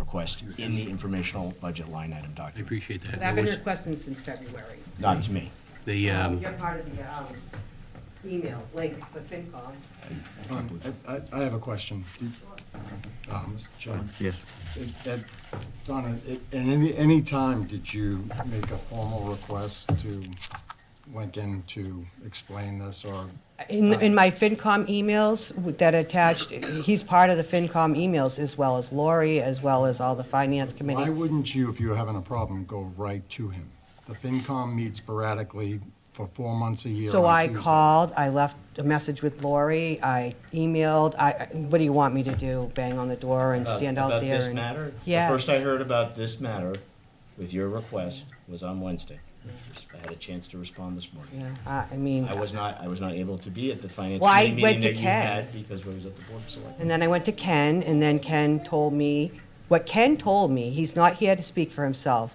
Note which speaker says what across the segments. Speaker 1: request in the informational budget line item
Speaker 2: I
Speaker 1: document,
Speaker 2: appreciate that.
Speaker 3: But I've
Speaker 2: There
Speaker 3: been
Speaker 2: was
Speaker 3: requesting since February.
Speaker 1: not to me.
Speaker 2: The, um,
Speaker 3: You're part of the um, email link for FinCom.
Speaker 4: Um, I, I- I have a question. Uh, Mr. Chairman.
Speaker 5: Yes.
Speaker 4: It- at- Donna, it- at any, any time did you make a formal request to Lincoln to explain this or?
Speaker 3: In, in my FinCom emails that attached, he's part of the FinCom emails as well as Lori, as well as all the finance
Speaker 4: Why
Speaker 3: committee.
Speaker 4: wouldn't you, if you were having a problem, go right to him? The FinCom meets sporadically for four months a year.
Speaker 3: So
Speaker 4: on
Speaker 3: I
Speaker 4: Tuesdays.
Speaker 3: called, I left a message with Lori, I emailed, I, I- what do you want me to do? Bang on the door and stand out there?
Speaker 1: About this
Speaker 3: and-
Speaker 1: matter?
Speaker 3: Yes.
Speaker 1: The first I heard about this matter with your request was on Wednesday. I had a chance to respond this morning.
Speaker 3: Yeah, I, I mean.
Speaker 1: I was not, I was not able to be at the finance
Speaker 3: Well, I
Speaker 1: committee
Speaker 3: went
Speaker 1: meeting that
Speaker 3: to
Speaker 1: you
Speaker 3: Ken.
Speaker 1: had because I was at the board of selectmen.
Speaker 3: And then I went to Ken, and then Ken told me what Ken told me. He's not here to speak for himself,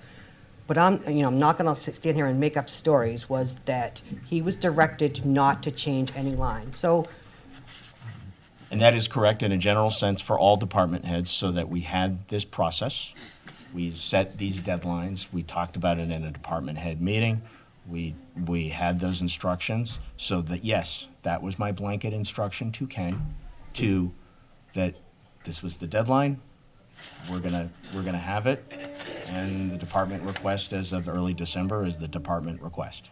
Speaker 3: but I'm, you know, I'm not going to stand here and make up stories. Was that he was directed not to change any line. So
Speaker 1: And that is correct in a general sense for all department heads, so that we had this process. We set these deadlines, we talked about it in a department head meeting, we, we had those instructions, so that, yes, that was my blanket instruction to Ken, to, that this was the deadline, we're gonna, we're gonna have it, and the department request as of early December is the department request.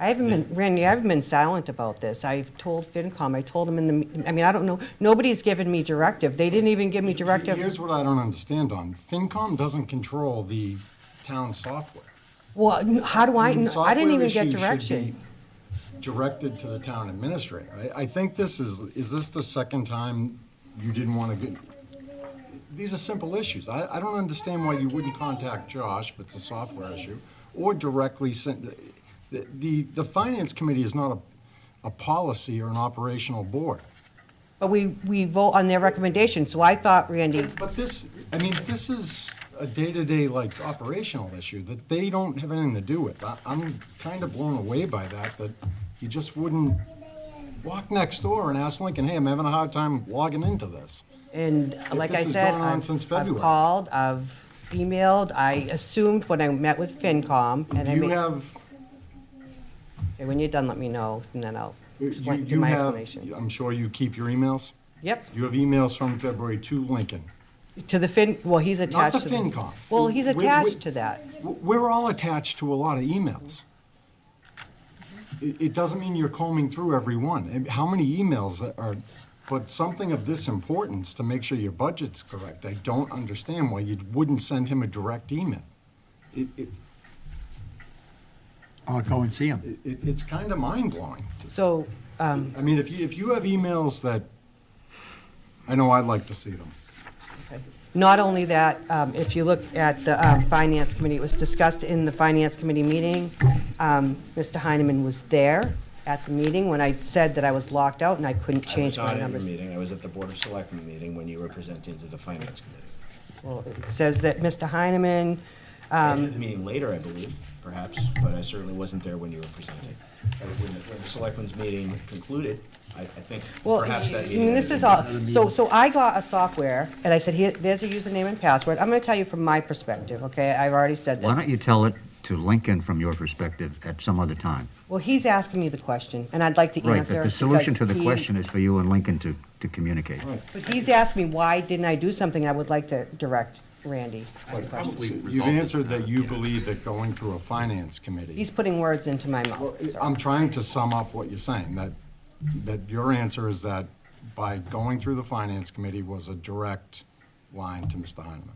Speaker 3: I haven't been, Randy, I haven't been silent about this. I've told FinCom, I told them in the, me- I mean, I don't know, nobody's given me directive. They didn't even give me directive.
Speaker 4: Here's what I don't understand on, FinCom doesn't control the town software.
Speaker 3: Well, n- how do I, kn- I didn't
Speaker 4: Software
Speaker 3: even get
Speaker 4: issues should
Speaker 3: direction.
Speaker 4: be Directed to the town administrator. I, I think this is, is this the second time you didn't want to get, these are simple issues. I, I don't understand why you wouldn't contact Josh if it's a software issue, or directly send, the, the, the finance committee is not a, a policy or an operational board.
Speaker 3: But we, we vote on their recommendation, so I thought, Randy,
Speaker 4: But this, I mean, this is a day-to-day, like, operational issue that they don't have anything to do with. I, I'm kind of blown away by that, that you just wouldn't walk next door and ask Lincoln, hey, I'm having a hard time logging into this.
Speaker 3: And like I
Speaker 4: this has
Speaker 3: said,
Speaker 4: gone on
Speaker 3: I've,
Speaker 4: since
Speaker 3: I've
Speaker 4: February.
Speaker 3: called, I've emailed, I assumed when I met with FinCom, and I
Speaker 4: You
Speaker 3: mean,
Speaker 4: have,
Speaker 3: Okay, when you're done, let me know, and then I'll
Speaker 4: you
Speaker 3: explain
Speaker 4: you
Speaker 3: my
Speaker 4: have,
Speaker 3: explanation.
Speaker 4: I'm sure you keep your emails?
Speaker 3: Yep,
Speaker 4: You have emails from February to Lincoln.
Speaker 3: to the Fin, well, he's attached
Speaker 4: the
Speaker 3: to the.
Speaker 4: FinCom.
Speaker 3: Well, he's
Speaker 4: Wait, wait.
Speaker 3: attached to that.
Speaker 4: W- We're all attached to a lot of emails. It, it doesn't mean you're combing through every one. And How many emails that are, but something of this importance to make sure your budget's correct. I don't understand why you wouldn't send him a direct email. It, it,
Speaker 5: I'll go and see him.
Speaker 4: it, it's kind of mind blowing.
Speaker 3: So, um,
Speaker 4: I mean, if you, if you have emails that, I know I'd like to see them.
Speaker 3: okay. not only that, um, if you look at the, um, Finance Committee, it was discussed in the Finance Committee meeting. Um, Mr. Heineman was there at the meeting when I said that I was locked out and I couldn't
Speaker 1: I was
Speaker 3: change my
Speaker 1: not at your
Speaker 3: numbers.
Speaker 1: meeting, I was at the board of selectmen meeting when you were presenting to the finance committee.
Speaker 3: Well, it says that Mr. Heineman,
Speaker 1: I
Speaker 3: Um,
Speaker 1: did the meeting later, I believe, perhaps, but I certainly wasn't there when you were presenting. Uh, When the, when the selectmen's meeting concluded, I, I think
Speaker 3: Well,
Speaker 1: perhaps that
Speaker 3: I
Speaker 1: meeting.
Speaker 3: mean, this is all, so, so I got a software, and I said, here, there's a username and password. I'm gonna tell you from my perspective, okay? I've already said
Speaker 5: Why don't
Speaker 3: this.
Speaker 5: you tell it to Lincoln from your perspective at some other time?
Speaker 3: Well, he's asking me the question, and I'd like to answer.
Speaker 5: Right, but the solution to
Speaker 3: because
Speaker 5: the
Speaker 3: he-
Speaker 5: question is for you and Lincoln to, to communicate.
Speaker 3: But he's asked me, why didn't I do something? I would like to direct Randy. that question.
Speaker 2: probably
Speaker 4: You've
Speaker 2: resolved this
Speaker 4: answered
Speaker 2: now,
Speaker 4: that you
Speaker 2: yeah.
Speaker 4: believe that going through a finance committee.
Speaker 3: He's putting words into my
Speaker 4: Well,
Speaker 3: mouth, so.
Speaker 4: I'm trying to sum up what you're saying, that, that your answer is that by going through the finance committee was a direct line to Mr. Heineman.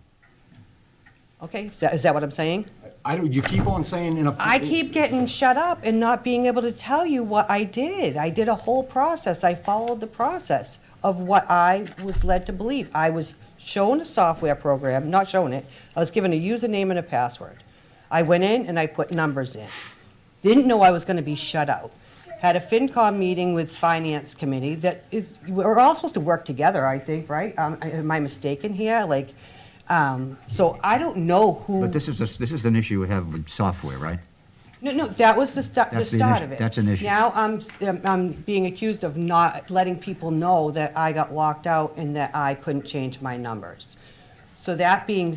Speaker 3: Okay, is that- is that what I'm saying?
Speaker 4: I don't, you keep on saying in a.
Speaker 3: I keep getting shut up and not being able to tell you what I did. I did a whole process. I followed the process of what I was led to believe. I was shown a software program, not shown it. I was given a username and a password. I went in and I put numbers in. Didn't know I was going to be shut out. Had a FinCom meeting with Finance Committee that is, we're all supposed to work together, I think, right? Um, am I mistaken here? Like, um, so I don't know who.
Speaker 5: But this is, a- this is an issue we have with software, right?
Speaker 3: No, no, that was the start, the
Speaker 5: That's the
Speaker 3: start
Speaker 5: initi-
Speaker 3: of it.
Speaker 5: that's an issue.
Speaker 3: Now I'm, s- um, I'm being accused of not letting people know that I got locked out and that I couldn't change my numbers. So that being